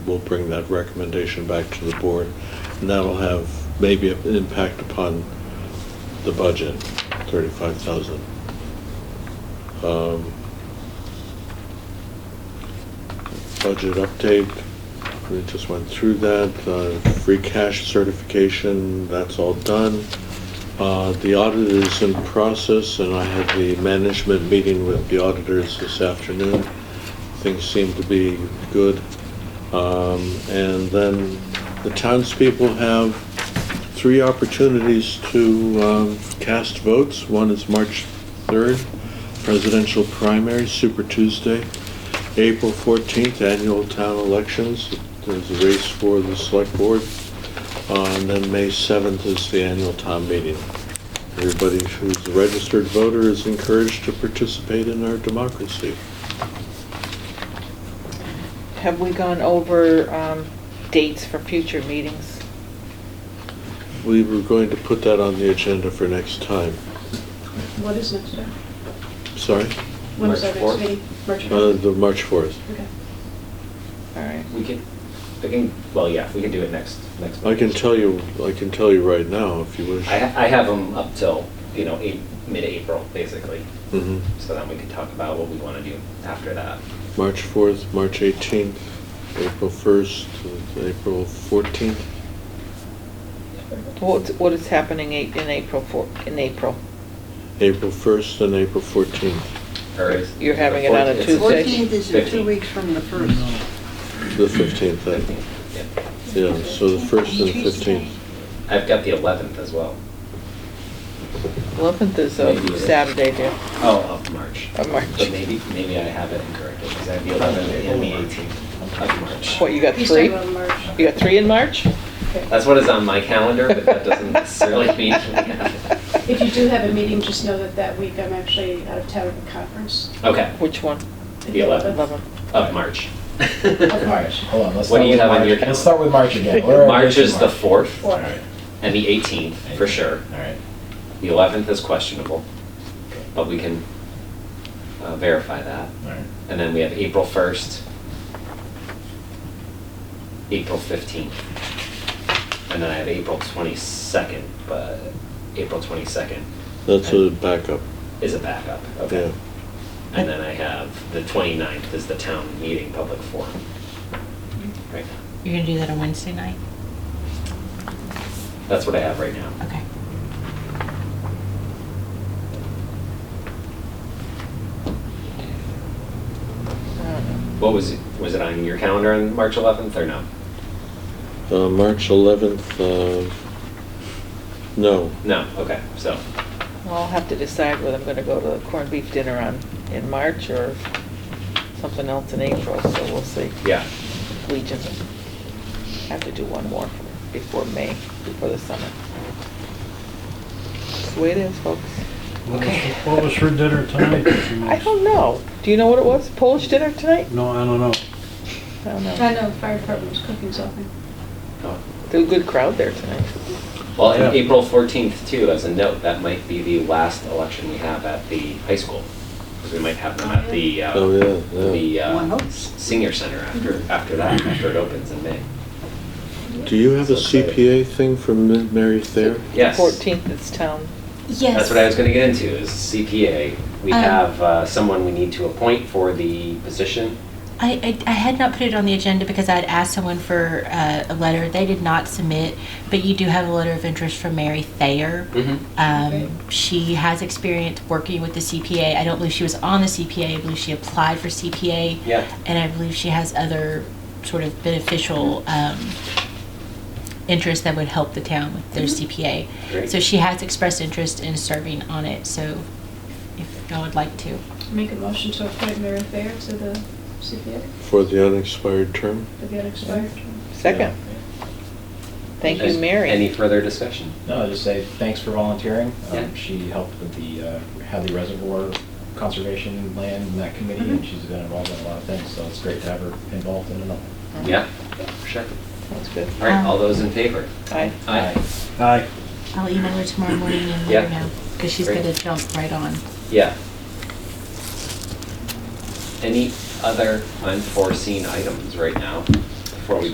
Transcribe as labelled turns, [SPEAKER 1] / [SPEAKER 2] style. [SPEAKER 1] We'll bring that recommendation back to the board, and that'll have maybe an impact upon the budget, thirty-five thousand. Um, Budget update, we just went through that, Uh, free cash certification, that's all done. Uh, The audit is in process, and I had the management meeting with the auditors this afternoon. Things seem to be good. Um, And then the townspeople have three opportunities to um, cast votes. One is March 3rd, presidential primary, Super Tuesday. April 14th, annual town elections. There's a race for the select board. Uh, And then May 7th is the annual town meeting. Everybody who's a registered voter is encouraged to participate in our democracy.
[SPEAKER 2] Have we gone over um, dates for future meetings?
[SPEAKER 1] We were going to put that on the agenda for next time.
[SPEAKER 3] What is next year?
[SPEAKER 1] Sorry,
[SPEAKER 3] When is our
[SPEAKER 4] March
[SPEAKER 3] next
[SPEAKER 4] fourth?
[SPEAKER 3] meeting? March
[SPEAKER 1] Uh,
[SPEAKER 3] fourth?
[SPEAKER 1] the March 4th.
[SPEAKER 3] Okay.
[SPEAKER 2] All right.
[SPEAKER 4] We can, I can, well, yeah, we can do it next, next.
[SPEAKER 1] I can
[SPEAKER 4] meeting.
[SPEAKER 1] tell you, I can tell you right now if you wish.
[SPEAKER 4] I, I have them up till, you know, eight, mid-April, basically,
[SPEAKER 1] Mhm.
[SPEAKER 4] so then we can talk about what we want to do after that.
[SPEAKER 1] March 4th, March 18th, April 1st, uh, April 14th.
[SPEAKER 2] What, what is happening a- in April for, in April?
[SPEAKER 1] April 1st and April 14th.
[SPEAKER 4] Or is-
[SPEAKER 2] You're having
[SPEAKER 4] the
[SPEAKER 2] it on a
[SPEAKER 4] 14th
[SPEAKER 2] Tuesday?
[SPEAKER 5] Fourteenth is two
[SPEAKER 4] Fifteenth.
[SPEAKER 5] weeks from the first.
[SPEAKER 1] The 15th, then.
[SPEAKER 4] Yeah.
[SPEAKER 1] yeah, so the 1st and 15th.
[SPEAKER 4] I've got the 11th as well.
[SPEAKER 2] 11th is a
[SPEAKER 4] Maybe.
[SPEAKER 2] Saturday there,
[SPEAKER 4] Oh, of March.
[SPEAKER 2] of
[SPEAKER 4] But
[SPEAKER 2] March.
[SPEAKER 4] maybe, maybe I have it incorrectly, because I have the 11th and the 18th of March.
[SPEAKER 2] What, you got
[SPEAKER 3] He's talking
[SPEAKER 2] three?
[SPEAKER 3] about March.
[SPEAKER 2] You got three in March?
[SPEAKER 4] That's what is on my calendar, but that doesn't necessarily mean we have it.
[SPEAKER 3] If you do have a meeting, just know that that week I'm actually out of town at a conference.
[SPEAKER 4] Okay,
[SPEAKER 2] Which one?
[SPEAKER 3] The
[SPEAKER 4] The 11th.
[SPEAKER 2] 11th.
[SPEAKER 4] of March.
[SPEAKER 3] Of
[SPEAKER 6] March,
[SPEAKER 3] March.
[SPEAKER 6] hold on, let's
[SPEAKER 4] What
[SPEAKER 6] start
[SPEAKER 4] do you
[SPEAKER 6] with
[SPEAKER 4] have on
[SPEAKER 6] March.
[SPEAKER 4] your
[SPEAKER 6] Let's start with March again. Where are
[SPEAKER 4] March
[SPEAKER 6] we
[SPEAKER 4] is
[SPEAKER 6] in
[SPEAKER 4] the
[SPEAKER 6] March?
[SPEAKER 4] 4th
[SPEAKER 6] All right,
[SPEAKER 4] and the 18th, for sure.
[SPEAKER 6] all right.
[SPEAKER 4] The 11th is questionable, but we can uh, verify that.
[SPEAKER 6] All right.
[SPEAKER 4] And then we have April 1st, April 15th. And then I have April 22nd, but April 22nd
[SPEAKER 1] That's a backup.
[SPEAKER 4] is a backup,
[SPEAKER 1] Yeah.
[SPEAKER 4] okay? And then I have the 29th is the town meeting public forum. Right now,
[SPEAKER 7] You're gonna do that on Wednesday night?
[SPEAKER 4] that's what I have right now.
[SPEAKER 7] Okay.
[SPEAKER 4] What was, it? was it on your calendar on March 11th or no?
[SPEAKER 1] Uh, March 11th, uh, no,
[SPEAKER 4] No, okay, so,
[SPEAKER 2] Well, I'll have to decide whether I'm gonna go to the corned beef dinner on, in March or something else in April, so we'll see.
[SPEAKER 4] yeah.
[SPEAKER 2] Legion. Have to do one more before May, before the summer. It's the way it is, folks.
[SPEAKER 8] What was- What was for dinner tonight? that you
[SPEAKER 2] I
[SPEAKER 8] missed?
[SPEAKER 2] don't know. Do you know what it was? Polish dinner tonight?
[SPEAKER 8] No, I don't know.
[SPEAKER 2] I don't
[SPEAKER 3] I
[SPEAKER 2] know.
[SPEAKER 3] know the fire department was cooking something.
[SPEAKER 4] Oh.
[SPEAKER 2] There's a good crowd there tonight.
[SPEAKER 4] Well, and
[SPEAKER 8] Yeah.
[SPEAKER 4] April 14th too, as a note, that might be the last election we have at the high school. Because we might have them at the, uh,
[SPEAKER 1] Oh, yeah, yeah.
[SPEAKER 4] the
[SPEAKER 5] One
[SPEAKER 4] uh,
[SPEAKER 5] hopes.
[SPEAKER 4] senior center after, after that, after it opens in May.
[SPEAKER 1] Do you have a CPA thing from Ma- Mary Thayer?
[SPEAKER 4] Yes.
[SPEAKER 2] Fourteenth, it's town.
[SPEAKER 7] Yes.
[SPEAKER 4] That's what I was going to get into, is CPA. We
[SPEAKER 7] Um,
[SPEAKER 4] have uh, someone we need to appoint for the position.
[SPEAKER 7] I, I, I had not put it on the agenda because I had asked someone for uh, a letter. They did not submit, but you do have a letter of interest from Mary Thayer.
[SPEAKER 4] Mm-hmm.
[SPEAKER 3] Okay.
[SPEAKER 7] Um, she has experience working with the CPA. I don't believe she was on the CPA. I believe she applied for CPA.
[SPEAKER 4] Yeah.
[SPEAKER 7] And I believe she has other sort of beneficial um, interests that would help the town with their CPA.
[SPEAKER 4] Mm-hmm. Great.
[SPEAKER 7] So she has expressed interest in serving on it. So if y'all would like to.
[SPEAKER 3] Make a motion to appoint Mary Fair to the CPA
[SPEAKER 1] For the unexpired term?
[SPEAKER 3] for the unexpired term.
[SPEAKER 2] Second. Thank you,
[SPEAKER 4] Any
[SPEAKER 2] Mary.
[SPEAKER 4] further discussion?
[SPEAKER 6] No, I'll just say thanks for volunteering. Um,
[SPEAKER 4] Yeah.
[SPEAKER 6] She helped with the uh, Hadley Reservoir Conservation Land and that committee, and
[SPEAKER 3] Mhm.
[SPEAKER 6] she's been involved in a lot of things, so it's great to have her involved in it all.
[SPEAKER 2] Mm-hmm.
[SPEAKER 4] Yeah, sure.
[SPEAKER 2] That's good.
[SPEAKER 4] All right, all
[SPEAKER 7] Um,
[SPEAKER 4] those in favor?
[SPEAKER 2] Aye.
[SPEAKER 4] Aye.
[SPEAKER 8] Aye.
[SPEAKER 7] I'll email her tomorrow morning and let her
[SPEAKER 4] Yeah.
[SPEAKER 7] know, because she's
[SPEAKER 4] Great.
[SPEAKER 7] gonna jump right on.
[SPEAKER 4] Yeah. Any other unforeseen items right now? before we